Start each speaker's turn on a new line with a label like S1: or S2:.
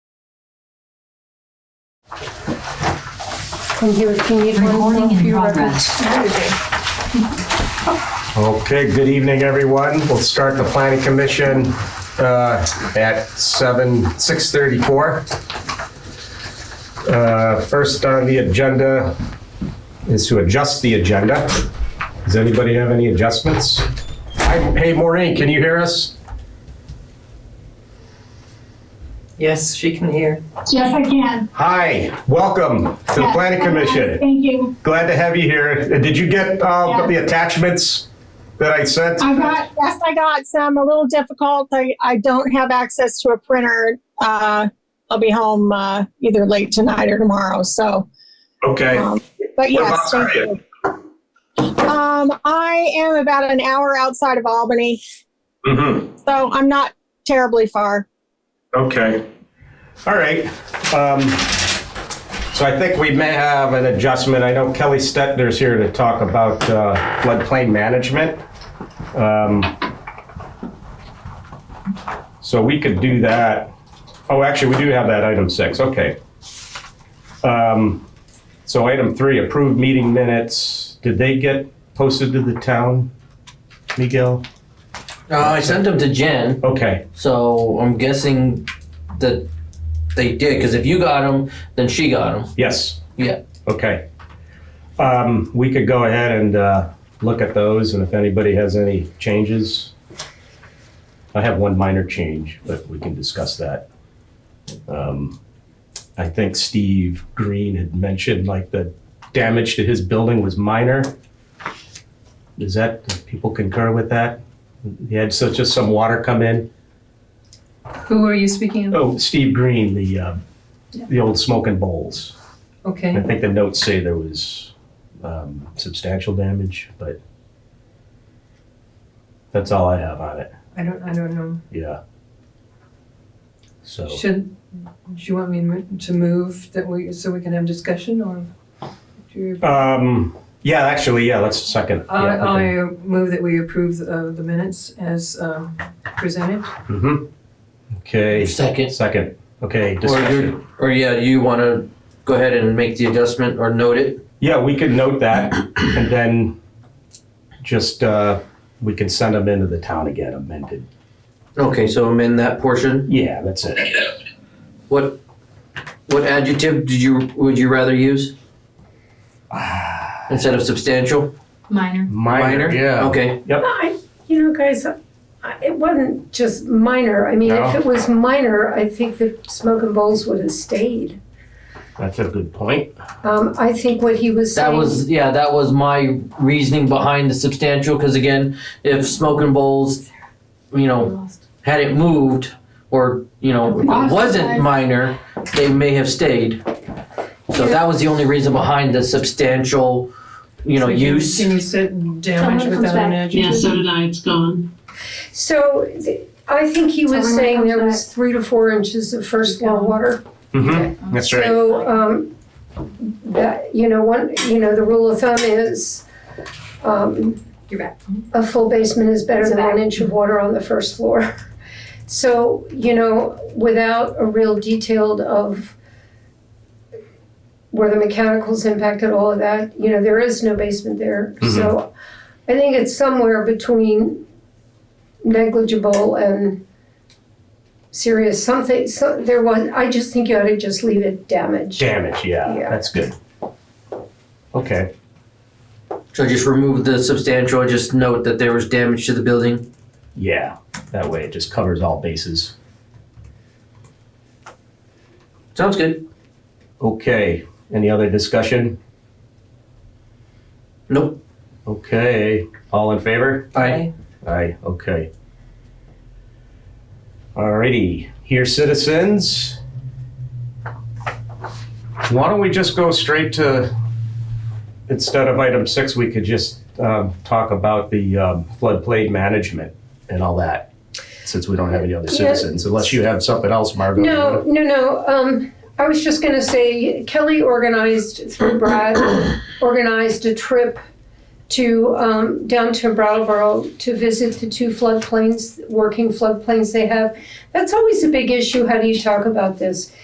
S1: Can you, if you need one more
S2: Recording
S1: for
S2: in
S1: your
S2: progress.
S1: records?
S3: Okay, good evening, everyone. We'll start the planning commission uh, at 7, 6:34. Uh, First on the agenda is to adjust the agenda. Does anybody have any adjustments? Hi- Hey, Maureen, can you hear us?
S4: Yes, she can hear.
S5: Yes, I can.
S3: Hi, welcome to the planning commission.
S5: Thank you.
S3: Glad to have you here. Did you get uh, the attachments that I sent?
S5: I got, yes, I got some, a little difficult. I, I don't have access to a printer. Uh, I'll be home, uh, either late tonight or tomorrow, so,
S3: Okay.
S5: um,
S3: What
S5: but yes.
S3: about
S5: thank you. Um, I am about an hour outside of Albany,
S3: Mhm.
S5: so I'm not terribly far.
S3: Okay. All right. Um, So I think we may have an adjustment. I know Kelly Stettner's here to talk about uh, floodplain management. Um, So we could do that. Oh, actually, we do have that item six. Okay. Um, So item three, approved meeting minutes. Did they get posted to the town, Miguel?
S6: Uh, I sent them to Jen,
S3: Okay.
S6: so I'm guessing that they did. Because if you got them, then she got them.
S3: Yes.
S6: Yeah.
S3: Okay. Um, We could go ahead and uh, look at those, and if anybody has any changes. I have one minor change, but we can discuss that. Um, I think Steve Green had mentioned, like, the damage to his building was minor. Is that, do people concur with that? He had such, just some water come in.
S2: Who are you speaking of?
S3: Oh, Steve Green, the, uh, the old smoking bowls. I
S6: Oh.
S2: Okay,
S3: think the notes say there was um, substantial damage, but that's all I have on it.
S2: I don't, I don't know.
S3: Yeah. So
S6: Oh.
S2: Should, do you want me mo- to move that we, so we can have discussion or? do you-
S3: um, yeah, actually, yeah. Let's second.
S2: I,
S3: yeah, okay.
S2: I move that we approve uh, the minutes as um, presented.
S3: Mhm. Okay.
S6: Second.
S3: Second. Okay.
S6: Or
S3: Discussion.
S6: you or yeah, you want to go ahead and make the adjustment or note it.
S3: Yeah, we can note that, and then just uh, we can send them into the town again amended.
S6: Okay, so I'm in that portion.
S3: Yeah, that's it.
S6: What what adjective did you would you rather use instead of substantial?
S7: Minor.
S3: Minor. Yeah.
S6: Okay.
S3: Yep.
S8: I, you know, guys, I- it wasn't just minor. I mean, if
S3: No.
S8: it was minor, I think the smoke and bowls would have stayed.
S3: That's a good point.
S8: Um, I think what he was
S6: That
S8: saying.
S6: was yeah. That was my reasoning behind the substantial. Because again, if smoking bowls, you know, had it moved or you know if it wasn't minor they may have stayed so that was the only reason behind the substantial you know
S2: Can
S6: use
S2: Can you set damage
S7: Someone comes
S2: without an
S7: Yeah,
S2: adjective?
S7: so did I. It's gone.
S8: So th- I think he
S7: So
S8: was
S7: when it
S8: saying
S7: comes
S8: there was three to four inches of first
S7: Keep going.
S8: floor water.
S3: Mm-hmm. That's right.
S8: So, um, that, you know, one, you know, the rule of thumb is, um,
S7: You're back.
S8: a full basement is better
S7: It's
S8: than
S7: back.
S8: one inch of water on the first floor. So, you know, without a real detailed of where the mechanicals impacted all of that, you know, there is no basement there.
S3: Mm-hmm.
S8: So I think it's somewhere between negligible and serious something, so there was, I just think you ought to just leave it damaged.
S3: Damage, yeah,
S8: Yeah.
S3: that's good. Okay,
S6: so just remove the substantial just note that there was damage to the building
S3: yeah, that way it just covers all bases.
S6: sounds good
S3: Okay, any other discussion?
S6: nope
S3: Okay, all in favor?
S6: i
S3: Aye, okay. Alrighty, here citizens. Why don't we just go straight to, instead of item six, we could just um, talk about the um, floodplain management and all that, since we don't have any other
S8: Yeah.
S3: citizens, unless you have something else, Margot.
S8: No, no, no. Um, I was just gonna say Kelly organized through Brad, organized a trip to um, down to Brattleboro to visit the two floodplains, working floodplains they have. That's always a big issue. How do you talk about this?